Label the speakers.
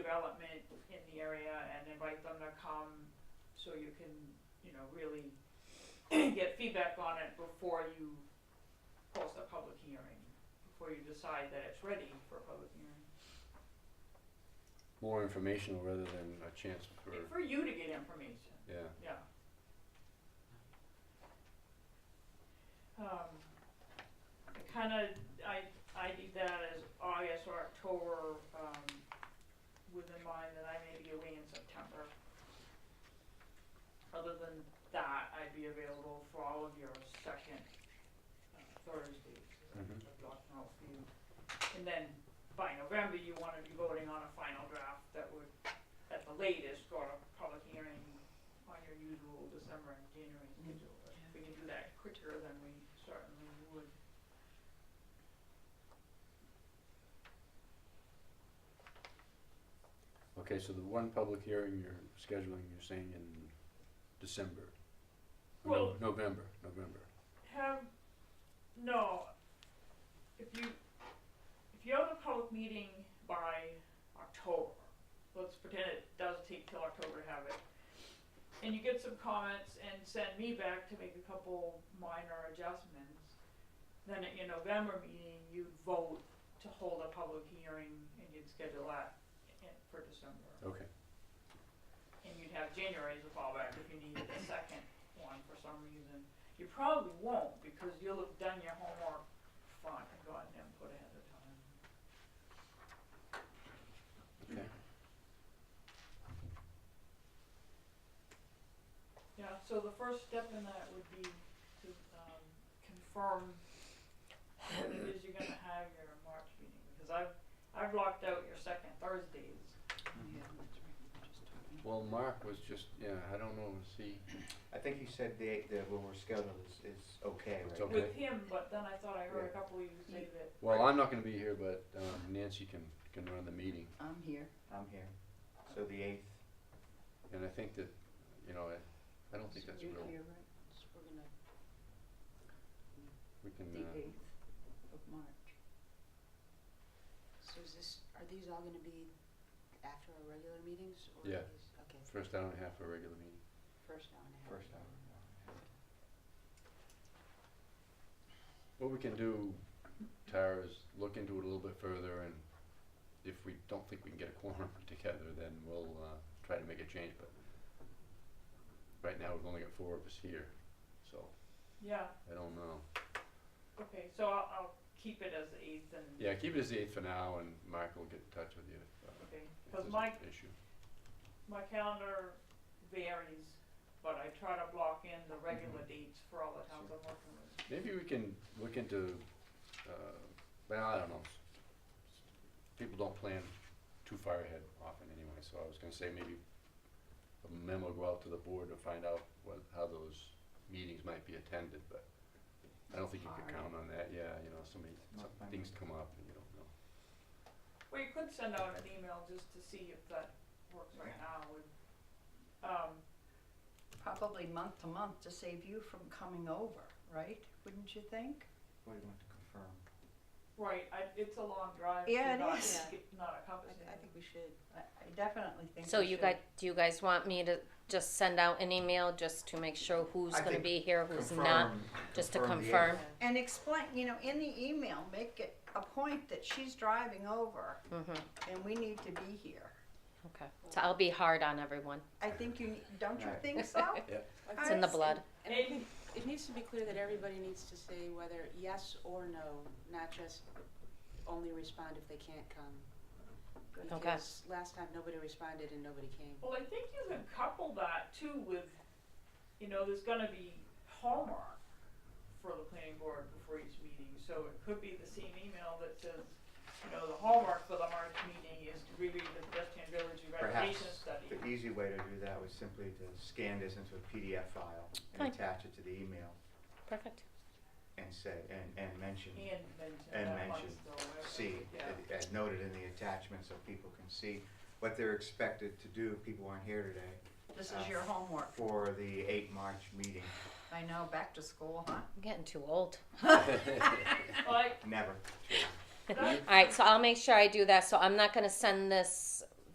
Speaker 1: development in the area and invite them to come so you can, you know, really get feedback on it before you post a public hearing, before you decide that it's ready for a public hearing.
Speaker 2: More informational rather than a chance for,
Speaker 1: For you to get information,
Speaker 2: yeah.
Speaker 1: yeah. Um, I kinda, I, I did that as August or October, um, with in mind that I may be away in September. Other than that, I'd be available for all of your second uh, Thursdays of
Speaker 2: Mhm.
Speaker 1: of blocking out for you. And then by November, you wanna be voting on a final draft that would, at the latest, go to public hearing on your usual December and January schedule. But If we can do that quicker, then we certainly would.
Speaker 2: Okay, so the one public hearing you're scheduling, you're saying in December? No-
Speaker 1: Well-
Speaker 2: November, November.
Speaker 1: Have, no, if you, if you have a public meeting by October, let's pretend it does take till October to have it. And you get some comments and send me back to make a couple minor adjustments. Then at your November meeting, you'd vote to hold a public hearing and you'd schedule that in- for December.
Speaker 2: Okay,
Speaker 1: and you'd have January as a fallback if you needed a second one for some reason. You probably won't because you'll have done your homework front and gotten input ahead of time.
Speaker 2: okay.
Speaker 1: Yeah, so the first step in that would be to, um, confirm when it is you're gonna have your March meeting, because I've, I've blocked out your second Thursdays.
Speaker 2: Well, Mark was just, yeah, I don't know, is he,
Speaker 3: I think you said the, the, when we're scheduled is, is okay,
Speaker 2: It's
Speaker 3: right?
Speaker 2: okay.
Speaker 1: With him, but then I thought I heard a
Speaker 3: Yeah.
Speaker 1: couple of you say that,
Speaker 2: well, I'm not gonna be here, but um, Nancy can, can run the meeting.
Speaker 4: I'm here.
Speaker 3: I'm here. So the eighth,
Speaker 2: And I think that, you know, I, I don't think
Speaker 4: So
Speaker 2: that's
Speaker 4: you're
Speaker 2: real,
Speaker 4: here, right? So we're gonna,
Speaker 2: we can,
Speaker 4: the
Speaker 2: uh,
Speaker 4: eighth of March. So is this, are these all gonna be after our regular meetings or
Speaker 2: Yeah.
Speaker 4: are these, okay,
Speaker 2: first hour and a half for a regular meeting.
Speaker 4: first hour and a half?
Speaker 3: first hour.
Speaker 2: What we can do, Tara, is look into it a little bit further and if we don't think we can get a quorum together, then we'll, uh, try to make a change, but right now, we've only got four of us here, so
Speaker 1: yeah,
Speaker 2: I don't know.
Speaker 1: okay, so I'll, I'll keep it as the eighth and,
Speaker 2: Yeah, keep it as the eighth for now and Mark will get in touch with you if, uh,
Speaker 1: okay,
Speaker 2: if
Speaker 1: cause
Speaker 2: there's
Speaker 1: my
Speaker 2: an issue.
Speaker 1: My calendar varies, but I try to block in the regular dates for all the towns I'm working with.
Speaker 2: Maybe we can look into, uh, well, I don't know. People don't plan too far ahead often anyway, so I was gonna say maybe a memo go out to the board to find out what, how those meetings might be attended, but I don't think you could count on that, yeah, you know, so many,
Speaker 3: Not
Speaker 2: some
Speaker 3: mine.
Speaker 2: things come up and you don't know.
Speaker 1: Well, you could send out an email just to see if that works right now with, um,
Speaker 5: probably month to month to save you from coming over, right? Wouldn't you think?
Speaker 3: What do you want to confirm?
Speaker 1: right, I, it's a long drive to
Speaker 5: Yeah, it
Speaker 1: not,
Speaker 5: is.
Speaker 1: get- not
Speaker 4: I,
Speaker 1: encompass
Speaker 4: th- I think we should.
Speaker 5: I, I definitely think.
Speaker 6: So
Speaker 5: we
Speaker 6: you
Speaker 5: should.
Speaker 6: guys, do you guys want me to just send out an email just to make sure who's
Speaker 3: I
Speaker 6: gonna
Speaker 3: think
Speaker 6: be here, who's not? Just to confirm.
Speaker 5: And explain, you know, in the email, make it a point that she's driving over
Speaker 6: Mm-hmm,
Speaker 5: and we need to be here.
Speaker 6: okay. So I'll be hard on everyone.
Speaker 5: I think you, ne- don't you
Speaker 3: Right.
Speaker 5: think so?
Speaker 6: It's in the
Speaker 5: Alright.
Speaker 6: blood.
Speaker 4: And I think it needs to be clear that everybody needs to say whether yes or no, not just only respond if they can't come.
Speaker 5: Good.
Speaker 6: Okay.
Speaker 4: Because last time, nobody responded and nobody came.
Speaker 1: Well, I think you can couple that too with, you know, there's gonna be homework for the planning board before each meeting, so it could be the same email that says, you know, the homework for the March meeting is to reread the pedestrian village
Speaker 3: Perhaps
Speaker 1: revitalization study.
Speaker 3: the easy way to do that was simply to scan this into a PDF file and
Speaker 6: Fine.
Speaker 3: attach it to the email
Speaker 6: Perfect.
Speaker 3: and say, and, and mention,
Speaker 1: And mention
Speaker 3: And
Speaker 1: that
Speaker 3: mention
Speaker 1: amongst the web-
Speaker 3: see,
Speaker 1: Yeah,
Speaker 3: and- and note it in the attachment so people can see what they're expected to do, people aren't here today,
Speaker 5: This is your homework.
Speaker 3: for the eight March meeting.
Speaker 5: I know, back to school, huh?
Speaker 6: I'm getting too old.
Speaker 1: like,
Speaker 3: Never.
Speaker 6: All right, so I'll make sure I do that. So I'm not gonna send this